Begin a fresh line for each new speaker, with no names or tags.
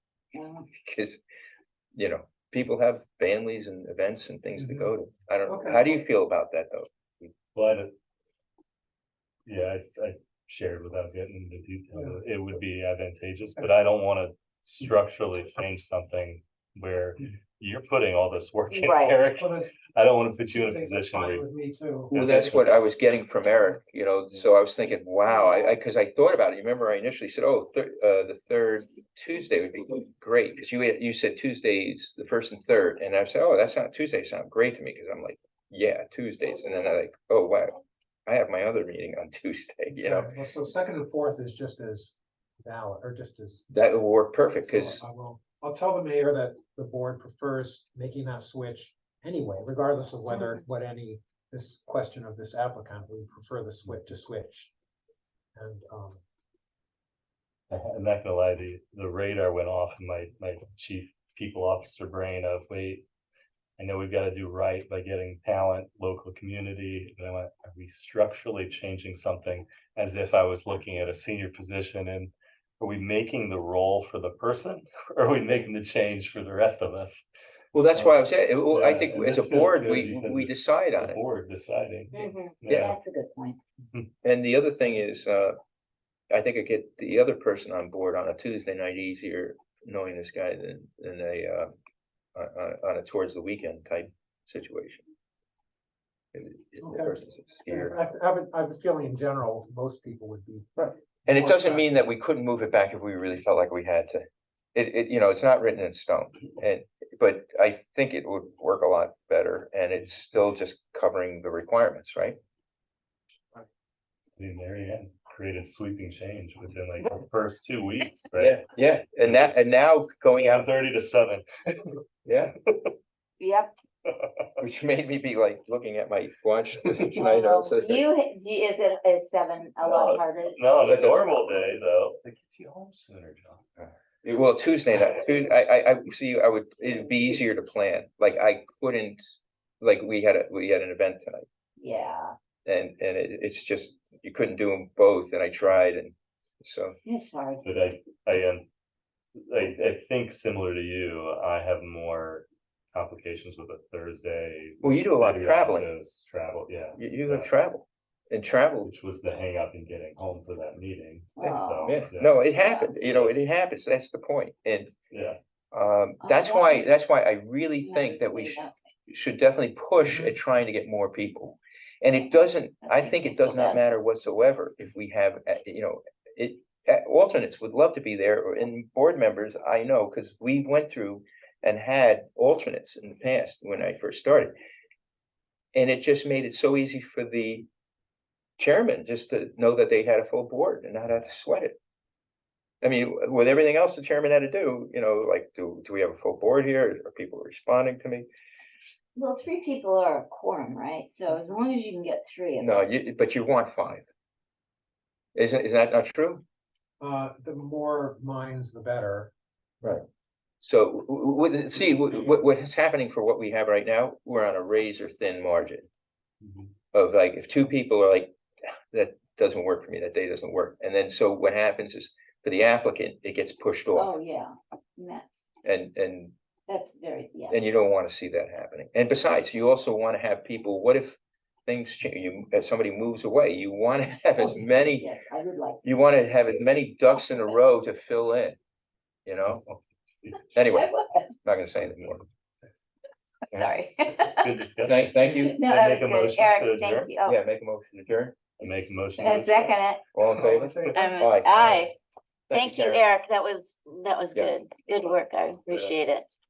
because, you know, people have families and events and things to
Mhm.
go to. I don't,
Okay.
how do you feel about that though?
But. Yeah, I, I shared without getting into detail, it would be advantageous, but I don't wanna structurally change something where you're putting all this work in,
Right.
Eric.
Well, that's-
I don't wanna put you in a
that's
position
fine
where, you-
With me too.
Well,
That's
that's what I was getting from Eric, you know, so I was thinking, wow, I, I, cause I thought about it, you remember I initially said, oh, thir- uh, the third Tuesday would be great, cause you, had- you said Tuesdays, the first and third, and I said, oh, that's not, Tuesdays sound great to me, cause I'm like, yeah, Tuesdays, and then I like, oh, wow, I have my other meeting on Tuesday, you know,
Okay, well, So second and fourth is just as valid, or just as.
that would work perfect,
so
cause,
I will, I'll tell the mayor that the board prefers making that switch anyway, regardless of whether, what any, this question of this applicant, we prefer the switch to switch. And, um,
I'm not gonna lie, the, the radar went off in my, my chief people officer brain of, wait. I know we've gotta do right by getting talent, local community, and I went, are we structurally changing something? As if I was looking at a senior position and are we making the role for the person? Or are we making the change for the rest of us?
well, that's why I was, saying, well, I
Yeah,
think
and
as
this
a
feels
board,
good
we,
because
we
it's
decide on
The
it.
board deciding.
Mhm.
Yeah,
That's a good point.
And the other thing is, uh, I think I get the other person on board on a Tuesday night easier knowing this guy than, than a, uh, on, on- on a towards the weekend type situation. If- if the
Okay.
person's here.
I, I have, a- I have a feeling in general, most people would be.
And it
Or
doesn't
not.
mean that we couldn't move it back if we really felt like we had to. It, it, you know, it's not written in stone and, but I think it would work a lot better and it's still just covering the requirements, right?
I mean, Mary Ann created sweeping change within like the first two weeks, right?
Yeah. Yeah, and that, and now going out,
Thirty to seven.
yeah.
Yep.
Which made me be like looking at my watch tonight. I
Um,
was just like,
You, ha- do you- is it, is seven a lot
No.
harder?
No, on a
But that's-
normal day though, it gets you home sooner, John.
Well, Tuesday night, Tu- I, I, I, see, I would, it'd be easier to plan. Like I couldn't, like we had, a we had an event tonight.
Yeah,
And, and it, it's just, you couldn't do them both and I tried and so,
I'm sorry.
But I, I am, I, I think similar to you, I have more complications with a Thursday.
well, you do a lot of
maybe
traveling.
office, Travel, yeah,
You, you have travel and travel.
which was the hang up in getting home for that meeting.
Oh.
Yeah.
So,
Yeah, no, it happened, you know, it happens. That's the point. And,
Yeah,
um,
Oh,
that's why,
wow.
that's why I really think that we should. should definitely push at trying to get more people. And it doesn't, Mm-hmm. I think it does not matter whatsoever if we have, uh, you know, it, uh, alternates would love to be there or in board members, I know, because we went through and had alternates in the past when I first started. And it just made it so easy for the chairman just to know that they had a full board and not have to sweat it. I mean, with everything else the chairman had to do, you know, like, do, do we have a full board here? Are people responding to me?
Well, three people are a quorum, right? So as long as you can get three. of
No,
us.
you, but you want five. Isn't, is that not true?
Uh, the more minds, the better.
So, w- w- w- see, what, what is happening for what we have right now, we're on a razor thin margin Mm-hmm.
Mhm.
of like, if two people are like, that doesn't work for me, that day doesn't work. And then, so what happens is for the applicant, it gets pushed
Oh,
off
yeah, and that's,
and, and,
that's very, yeah.
and you don't want to see that happening. And besides, you also want to have people, what if things change, you, if somebody moves away, you want to have as many
Yes, I would like.
you want to have as many ducks in a row to fill in, you know?
I
Anyway,
would,
not gonna say anything more.
Sorry.
good discussion.
Thank, thank you.
No,
I
that
make a
was
motion to
good. Eric,
adjourn?
thank you. Oh,
Yeah, make a motion to adjourn.
I Make a motion.
and second it.
All in favor?
I'm
Aye.
a- Aye. Thank you,
Karen.
Eric. That was, that was
Yeah.
good. Good work. I appreciate it.